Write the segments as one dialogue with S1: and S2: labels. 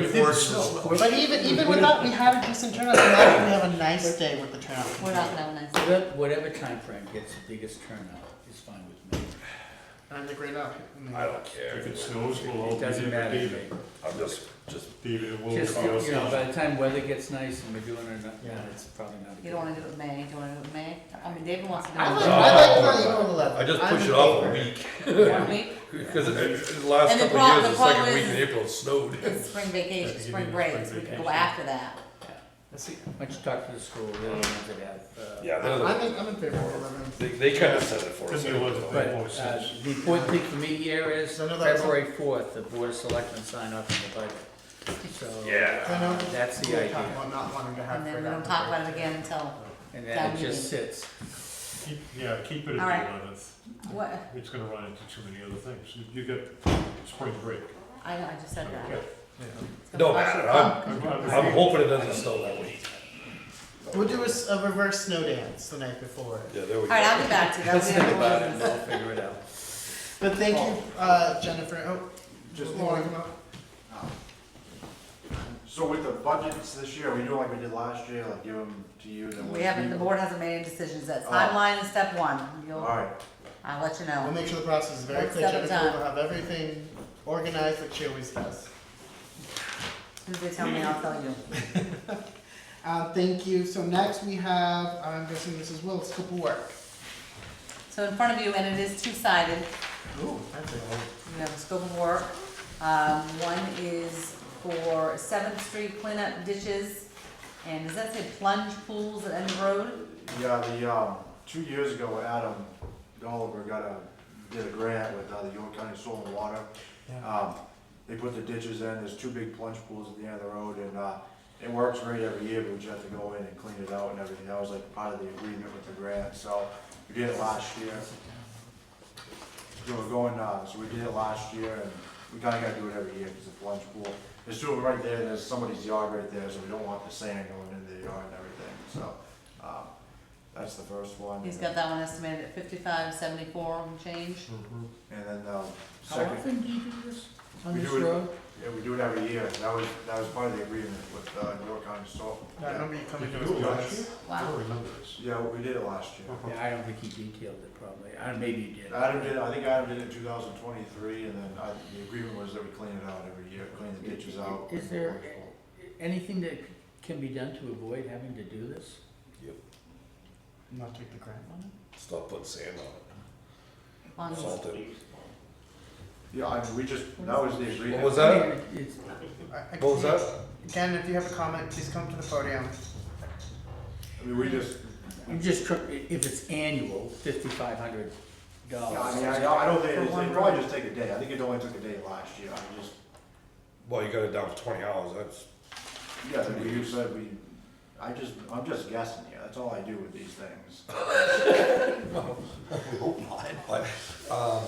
S1: worse than snow.
S2: But even, even with that, we had a decent turnout, so imagine we have a nice day with the turnout.
S3: We're not gonna have a nice day.
S4: Whatever- Whatever time frame gets the biggest turnout is fine with me.
S2: I'm the great up.
S1: I don't care.
S5: If it snows, we'll all
S4: It
S5: be
S4: doesn't
S5: there,
S4: matter to
S5: leave
S4: me.
S5: it,
S1: I'm just, just,
S5: leave it, we'll.
S4: Just,
S5: we'll-
S4: you know, by the time weather gets nice and we're doing it, or not,
S2: Yeah.
S4: it's probably not. a
S3: You
S4: good
S3: don't wanna do
S4: idea.
S3: it with May, do you wanna do it with May? I mean, David wants to do
S2: I like,
S3: it.
S2: I like the Eagle Eleven.
S1: Oh. I just
S2: I'm
S1: push
S2: in
S1: it off a
S2: favor.
S1: week,
S3: One week,
S1: because it- it- the last
S3: And the
S1: couple of
S3: prob-
S1: years,
S3: the
S1: the second
S3: problem
S1: week
S3: is-
S1: in April it snowed.
S3: it's spring vacation,
S5: Yeah,
S3: spring
S5: you
S3: break,
S5: need
S3: so we can go
S5: vacation.
S3: after that.
S2: Let's see.
S4: Why don't you talk to the school, they're the ones that have, uh.
S1: Yeah, they're
S2: I'm
S1: the-
S2: in, I'm in favor of eleven.
S1: they, they kind of said it for us.
S5: Doesn't it look
S4: But,
S5: Right.
S4: uh, the important thing for me here is
S2: No, no, that's-
S4: February fourth, the board of selectmen sign off on the budget. So.
S1: Yeah.
S2: I know.
S4: That's the
S2: we were talking
S4: idea.
S2: about not wanting to have.
S3: And then we
S2: forgotten
S3: don't talk
S2: break.
S3: about it again until,
S4: And then it just sits.
S5: Keep- Yeah, keep it at
S3: All right.
S5: the eleventh,
S3: what,
S5: it's gonna run into too many other things, You- you get spring break.
S3: I know, I just said that.
S5: Okay.
S3: It's gonna
S1: No
S3: cost
S1: matter,
S3: you-
S1: I'm,
S5: I'm- I'm-
S1: I'm hoping it doesn't snow that week.
S2: We'll do a, s- a reverse snow dance the night before.
S1: Yeah, there we
S3: Alright, I'll be back to you, that'll
S4: Let's
S3: be
S4: think about it
S3: the
S4: and we'll figure it out.
S2: But thank you, uh, Jennifer. Oh,
S6: Just
S2: you wanna
S6: one.
S2: come up?
S6: So with the budgets this year, we do like we did last year, like give them to you, then we.
S3: We haven't, the board hasn't made any decisions, that's
S6: Oh.
S3: timeline is step one,
S6: All
S3: you'll,
S6: right,
S3: I'll let you
S2: We'll
S3: know.
S2: make sure the process is very
S3: One
S2: clear.
S3: step at a
S2: Jennifer will have everything organized like she always does.
S3: If they tell me, I'll tell you.
S2: Uh, thank you. So next we have, I'm guessing this is Will's scope of work.
S3: So in front of you, and it is two-sided,
S2: Ooh, that's a
S3: you have a scope of work. Um, one is for Seventh Street cleanup ditches, and does that say plunge pools at end of road?
S6: yeah, the, um, two years ago, Adam Oliver got a, did a grant with, uh, the York County Soil and Water. Um, they put the ditches in, there's two big plunge pools at the end of the road, and, uh, it works great every year, but we just have to go in and clean it out and everything, that was like part of the agreement with the grant, so we did it last year. We were going, uh, so we did it last year, and we kinda gotta do it every year, cause it's a plunge pool. There's two of them right there, there's somebody's yard right there, so we don't want the sand going into the yard and everything, so, um, that's the first one.
S3: He's got that one estimated at fifty-five, seventy-four and change.
S6: And then, um,
S4: How
S6: second.
S4: often do you do this?
S2: On
S6: We
S2: this
S6: do it-
S2: road?
S6: Yeah, we do it every year, that was, that was part of the agreement with, uh, York County Salt.
S2: I remember you coming to
S5: Did
S2: us.
S5: you do it
S2: with
S5: last
S2: this.
S5: year? I
S3: Wow.
S5: don't remember this.
S6: Yeah, we did it last year.
S4: Yeah, I don't think he detailed it probably, I, maybe he did.
S6: Adam did, I think Adam did it in two thousand twenty-three, and then I, the agreement was that we clean it out every year, clean the ditches out.
S4: Is there anything that can be done to avoid having to do this?
S2: Not take the grant money?
S1: Stop putting sand on
S3: On
S1: it, salt it.
S6: Yeah, I mean, we just, that was the
S1: What
S6: agreement.
S1: was that?
S4: I mean, it's-
S2: I- I
S1: What was
S2: can't-
S1: that?
S2: Jen, if you have a comment, please come to the podium.
S6: I mean, we just,
S4: I'm just, tr- if it's annual, fifty-five hundred
S6: yeah, I mean,
S4: dollars.
S6: I, I don't think,
S3: For
S6: it's-
S3: one
S6: it probably
S3: road.
S6: just take a day, I think it only took a day last year, I just,
S1: Well, you got it down to twenty hours, that's,
S6: yeah, I mean, you said we, I just, I'm just guessing here, that's all I do with these things.
S1: but, um,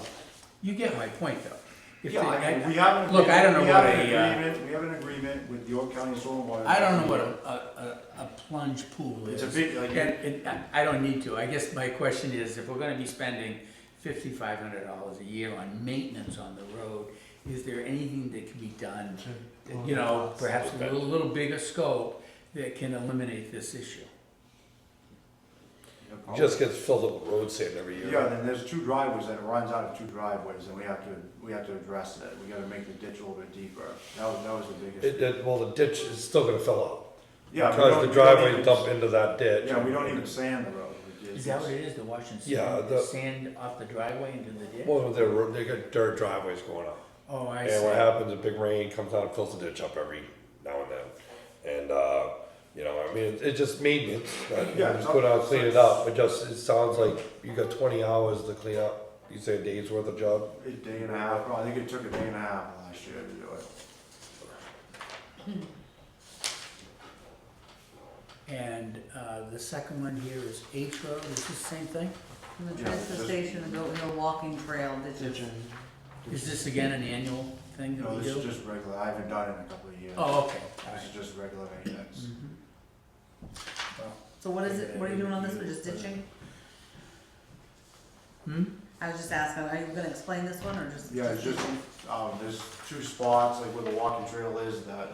S4: You get my point, though. If
S6: Yeah,
S4: they-
S6: I mean, we have an.
S4: Look, I don't know
S6: we
S4: what
S6: have an
S4: a, uh,
S6: agreement- We have an agreement with York County Soil and Water.
S4: I don't know what a, a, a- a plunge pool is.
S6: It's a big, like,
S4: And, and I- I don't need to, I guess my question is, if we're gonna be spending fifty-five hundred dollars a year on maintenance on the road, is there anything that can be done, that, you know, perhaps a little, little bigger scope that can eliminate this issue?
S1: it just gets filled up with road sand every
S6: Yeah,
S1: year.
S6: then there's two driveways that runs out of two driveways, and we have to, we have to address that, we gotta make the ditch a little bit deeper, that was, that was the
S1: It,
S6: biggest.
S1: that, well, the ditch is still gonna fill up,
S6: Yeah, we don't-
S1: because
S6: we
S1: the
S6: don't
S1: driveway
S6: even-
S1: dump into that ditch.
S6: Yeah, we don't even sand the road. we just-
S4: Is that what it is, the washing
S1: Yeah,
S4: sand, the
S1: the-
S4: sand off the driveway into the ditch?
S1: Well, they're, ro- they got dirt driveways going up.
S4: Oh, I
S1: And what
S4: see.
S1: happens, a big rain comes out and fills the ditch up every now and then. And, uh, you know, I mean, it- it's just maintenance, uh, you
S6: Yeah,
S1: just
S6: it's
S1: go
S6: not-
S1: down, clean it up, it just, it sounds like you got twenty hours to clean up, you say a day's worth of job?
S6: A day and a half, oh, I think it took a day and a half last year to do it.
S4: And, uh, the second one here is H Road, is this the same thing?
S3: From the
S6: Yeah,
S3: transfer
S6: just-
S3: station, the Goat Hill walking trail ditches.
S4: Is this again an annual thing that
S6: No,
S4: we
S6: this is
S4: do?
S6: just regular, I haven't done it in a couple of years.
S4: Oh, okay, all
S6: This is
S4: right.
S6: just regular maintenance.
S4: Mhm. Well,
S3: So what is it, what are you doing on this, we're just ditching?
S4: Hmm?
S3: I was just asking, are you gonna explain this one, or just?
S6: Yeah, it's just, um, there's two spots, like where the walking trail is, that